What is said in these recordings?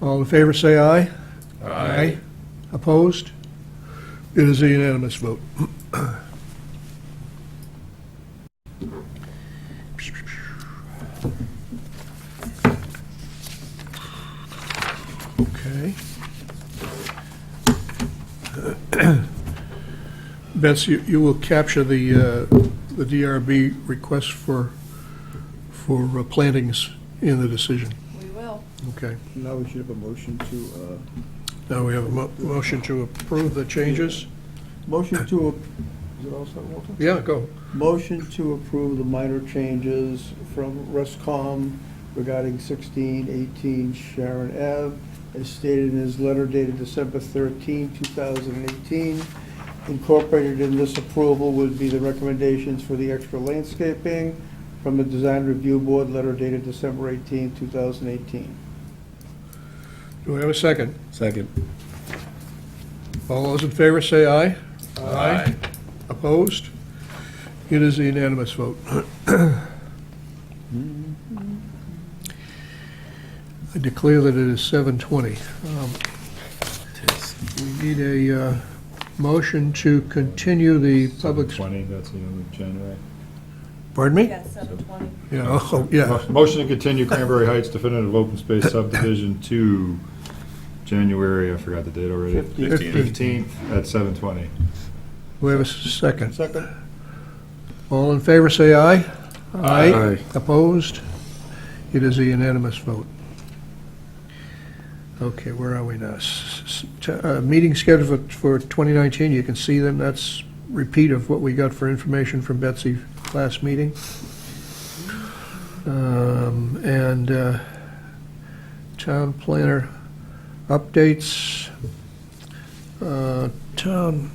All in favor, say aye. Opposed? It is a unanimous vote. Okay. Betsy, you- you will capture the, uh, the DRB request for, for uh, plantings in the decision. We will. Okay. Now we should have a motion to, uh, Now we have a mo- motion to approve the changes. uh, motion to, a- is it all set, Walter? Yeah, go. Motion to approve the minor changes from Ruscom regarding 1618 Sharon Ave, as stated in his letter dated December 13, 2018. Incorporated in this approval would be the recommendations for the extra landscaping from the Design Review Board, letter dated December 18, 2018. Do I have a second? Second. All those in favor say aye. Opposed? It is a unanimous vote. I declare that it is 7:20. Um, We need a uh, motion to continue the public... Twenty, that's the end of January. Pardon me? Yeah, seven twenty. Yeah, oh, yeah. Motion to continue Cranberry Heights definitive open space subdivision to January, I forgot the date already. Fifteenth. Fifteenth at seven twenty. We have a second. Second? All in favor say aye. Aye. Opposed? It is a unanimous vote. Okay, where are we now? S- s- t- uh, Meeting scheduled for- for 2019, you can see them, that's repeat of what we got for information from Betsy last meeting. Um, And uh, town planner updates. Uh, Town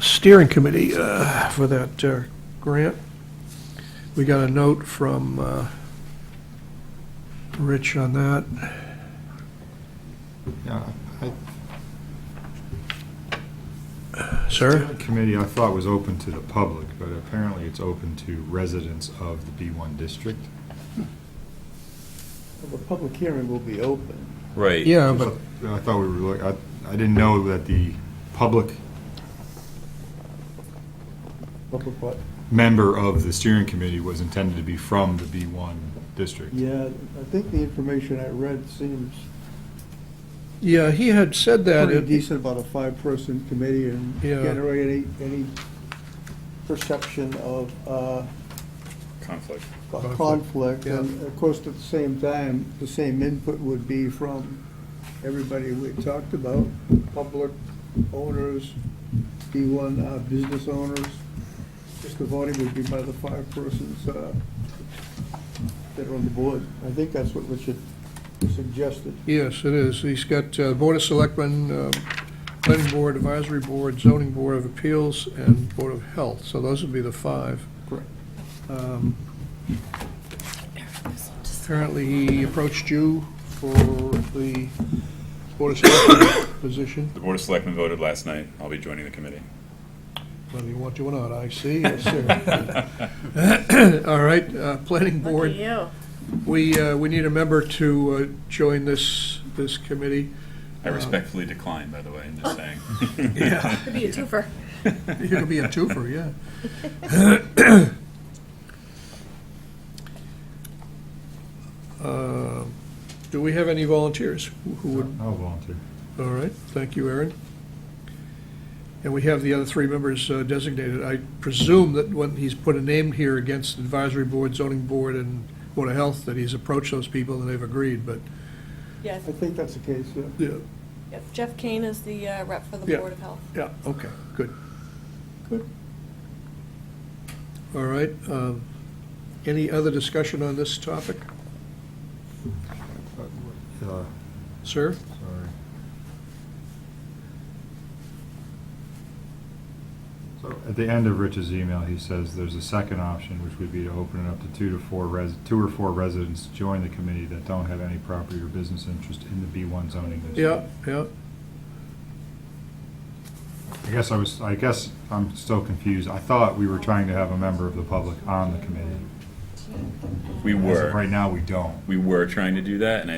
steering committee uh, for that uh, grant. We got a note from uh, Rich on that. Yeah, I- Sir? the Committee I thought was open to the public, but apparently it's open to residents of the B one district. The public hearing will be open. Right. Yeah, Uh, but I thought we were, look- I, I didn't know that the public Public what? member of the steering committee was intended to be from the B one district. Yeah, I think the information I read seems yeah, he had said that. pretty it- decent about a five-person committee and Yeah. generate any, any perception of uh, Conflict. Conflict. conflict. Yeah. And of course, at the same time, the same input would be from everybody we talked about, public owners, B1 uh, business owners. Just the voting would be by the five persons uh, that are on the board. I think that's what Richard suggested. Yes, it is. He's got uh, Board of Selectmen, um, Planning Board, Advisory Board, Zoning Board of Appeals, and Board of Health. So those would be the five. Correct. Um, Apparently, he approached you for the Board of Selectmen position. The Board of Selectmen voted last night. I'll be joining the committee. Whether you want to or not, I see, yes, sir. All right, uh, planning Lucky board, you. we, uh, we need a member to uh, join this, this committee. I respectfully decline, by the way, I'm just saying. Yeah. Could be a twofer. It'll be a twofer, yeah. Uh, Do we have any volunteers who- who would, I'll volunteer. all right, thank you, Aaron. And we have the other three members uh, designated. I presume that when he's put a name here against advisory board, zoning board, and Board of Health, that he's approached those people and they've agreed, but, Yes, I think that's the case, yeah. yeah, yes. Jeff Kane is the uh, rep for the Yeah. Board of Health. yeah, okay, good. Good. All right, um, any other discussion on this topic, Uh, sir? Sorry. So at the end of Rich's email, he says there's a second option, which would be to open it up to two to four res, two or four residents to join the committee that don't have any property or business interest in the B one zoning Yeah, district. yeah, I guess I was, I guess I'm still confused. I thought we were trying to have a member of the public on the committee. We As of were, Right now, we don't. we were trying to do that, and I